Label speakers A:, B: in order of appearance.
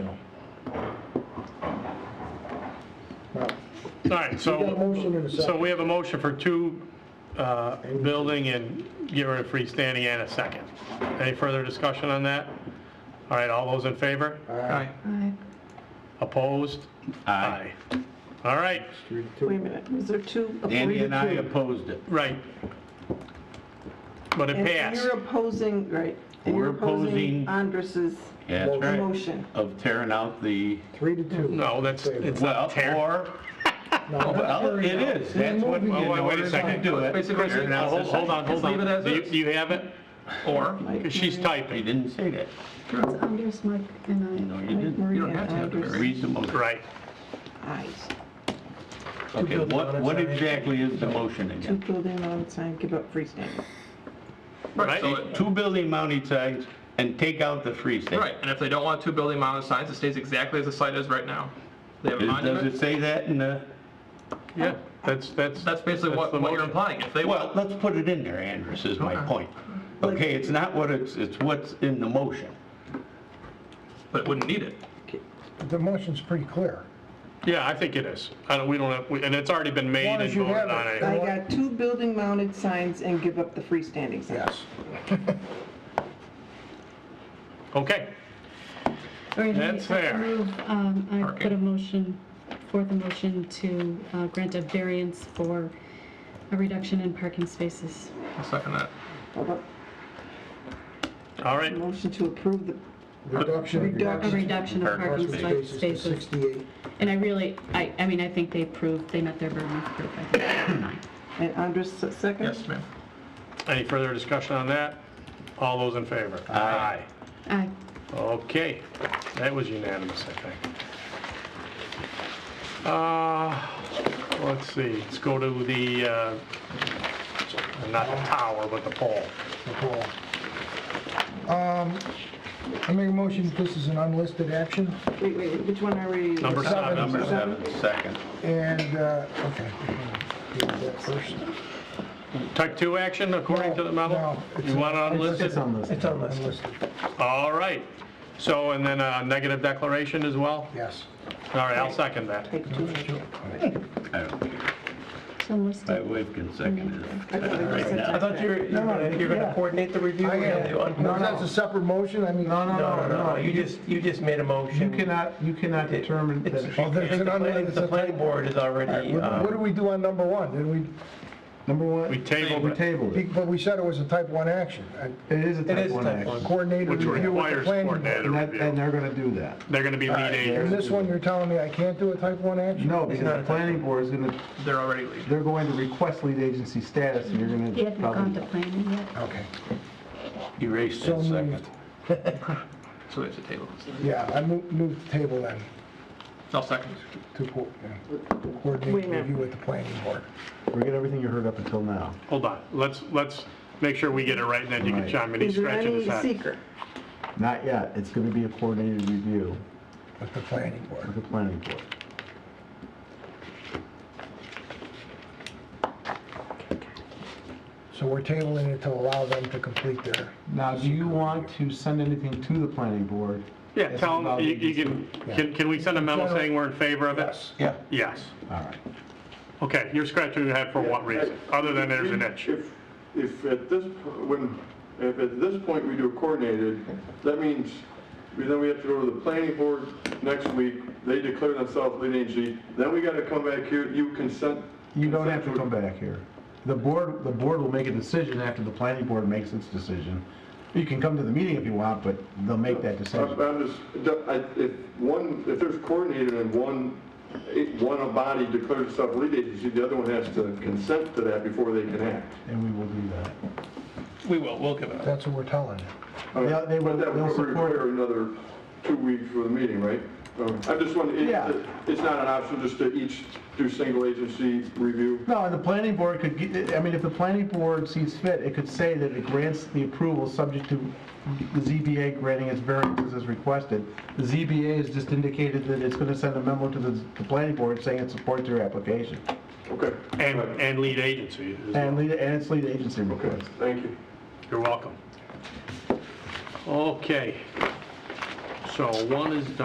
A: All right,
B: We got a
A: so,
B: motion and a
A: so
B: second.
A: we have a motion for two, uh, building and get rid of freestanding and a second. Any further discussion on that? All right, all those in favor?
B: Aye.
C: Aye.
A: Opposed?
D: Aye.
A: All right,
B: Three to
C: Wait a
B: two.
C: minute, is there two? oh,
D: Andy
C: three
D: and I
C: to two.
D: opposed it.
A: right. But it
C: And- and
A: passed.
C: You're opposing, right. and you're
D: We're opposing-
C: Andres's
D: Yeah, that's right.
C: motion.
D: Of tearing out the,
B: Three to two.
A: No, that's, it's not
D: well,
A: tear.
D: or,
B: No,
D: well, it is, that's what we
A: Well,
D: did.
A: wait- wait a second.
D: Do it.
E: Basically,
D: Tearing out
A: Hold
D: the
A: hold on, hold
E: Just leave
A: on.
E: it as
A: Do you-
E: is.
A: do you have it? Or, 'cause she's
D: You
A: typing,
D: didn't say that.
C: It's Andres, Mike, and I.
D: No, you didn't. You
C: Maria
E: don't have to have the
C: Andres.
E: variation.
D: Reasonable.
A: right.
C: Ayes.
D: Okay, what, what exactly is the motion
C: Two
D: again?
C: building mounted sign, give up freestanding.
A: Right.
E: So it-
D: Two building mounted signs and take out the freestanding.
E: Right, and if they don't want two building mounted signs, it stays exactly as the site is right now. They have a
D: Is- Does it
E: monument,
D: say that in the,
A: Yeah, that's, that's.
E: that's basically what,
A: the
E: what you're
A: motion.
E: implying. If they
D: well,
E: want,
D: let's put it in there, Andrus, is my point. Okay, it's not what it's, it's what's in the motion.
E: but it wouldn't need it.
B: The motion's pretty clear.
A: Yeah, I think it is. I don't, we don't have, we- and it's already been made
B: long
A: and
B: as you have
A: voted on
B: it.
A: anyway.
C: I got two building mounted signs and give up the freestanding sign.
B: Yes.
A: Okay,
F: Alright, I
A: That's fair.
F: move, um, I put a
E: Parking.
F: motion, forth a motion to uh, grant a variance for a reduction in parking spaces.
E: I'll second that.
C: How about
A: all right.
C: Motion to approve the,
B: Reduction.
F: A reduction of
B: Parking
F: parking spa-
B: spaces to
F: spaces.
B: 68.
F: And I really, I, I mean, I think they proved, they met their burden of proof. I think it's fine.
C: and Andres se- second?
E: Yes, ma'am.
A: Any further discussion on that? All those in favor? Aye.
F: Aye.
A: Okay, that was unanimous, I think. Uh, let's see, let's go to the, uh, not the tower, but the pole.
B: Nicole. Um, I make a motion, that this is an unlisted action,
C: Wait, wait, which one are we?
A: Number seven.
D: Number seven, second.
B: and, uh, okay. Do that first.
A: Type 2 action according to the memo?
B: No, it's-
A: You want it unlisted?
B: It's unlisted,
A: All right. So, and then a negative declaration as well?
B: yes.
A: All right, I'll second that.
C: Take two.
D: I don't care.
F: So
D: My
F: listed.
D: wife can second it.
C: I thought it was
D: Right now.
C: a-
G: I thought you were, you
B: No, no,
G: were- you were gonna
B: yeah.
G: coordinate the review?
B: I
G: and the
B: am,
G: un-
B: no, that's a separate motion, I mean.
G: No, no, no, you just, you just made a
H: You
G: motion.
H: cannot, you cannot
G: It-
H: determine
G: it's-
H: that.
B: Oh, there's an
G: The planning-
B: unlisted-
G: the planning board is already,
B: What what do
G: uh,
B: we do on number one? Did we,
H: Number one.
A: We tabled
H: We
A: it.
H: tabled it.
B: but we said it was a type one action, a
H: It is a
G: it
H: type
G: is
H: one
G: type
H: action.
G: one.
B: coordinated
A: Which
B: review with the
A: requires
B: planning. board.
A: coordinated
H: And that- and
A: review.
H: they're gonna do that.
A: They're going to be lead
B: And
A: agents.
B: this one, you're telling me I can't do a type one action?
H: No, because the planning board is gonna,
E: They're already leading.
H: they're going to request lead agency status and you're gonna.
F: You haven't gone
H: probably-
F: to planning yet.
B: Okay,
D: Erase
B: So
D: that second.
B: moved.
E: So we have to table this.
B: yeah, I move, move to table then,
E: I'll second.
B: to co- yeah, to
C: Wait a
B: coordinate
C: minute.
B: review with the planning board.
H: Forget everything you heard up until now.
A: Hold on, let's, let's make sure we get it right, and then you can
H: Right.
A: chime in, he's
C: Is there
A: scratching
C: any
A: his head.
C: seeker?
H: Not yet. It's gonna be a coordinated review
B: With the planning board.
H: with the planning board.
B: So we're tabling it to allow them to complete their,
H: Now, do you want to send anything to the planning board?
A: Yeah, tell him, you you can, can, can we send a memo saying we're in favor of it?
B: yes.
H: Yeah.
A: Yes.
H: All right.
A: Okay, you're scratching your head for what reason, other than there's an itch?
I: If, if at this, po- when, if at this point we do a coordinated, that means, we- then we have to go to the planning board next week, they declare themselves lead agency, then we gotta come back here, you consent.
H: You don't have to come back here. The board, the board will make a decision after the planning board makes its decision. You can come to the meeting if you want, but they'll make that
I: I'm
H: decision.
I: I'm just, the- I- if one, if there's coordinated and one, it- one body declares itself lead agency, the other one has to consent to that before they can act.
H: And we will do that.
E: We will, we'll give it up.
B: That's what we're telling them.
H: Yeah, they will-
I: But that
H: they'll
I: would
H: support it.
I: require another two weeks for the meeting, right? Um, I just want, it-
H: Yeah.
I: it's not an option just to each do single agency review?
H: No, and the planning board could, get- I mean, if the planning board sees fit, it could say that it grants the approval subject to the ZBA granting its variances as requested. The ZBA has just indicated that it's gonna send a memo to the, the planning board saying it supports your application.
I: Okay.
A: And,
I: All right.
A: and lead agency. as well.
H: And lead, and it's lead agency request.
I: Thank you.
A: You're welcome. Okay. So one is done.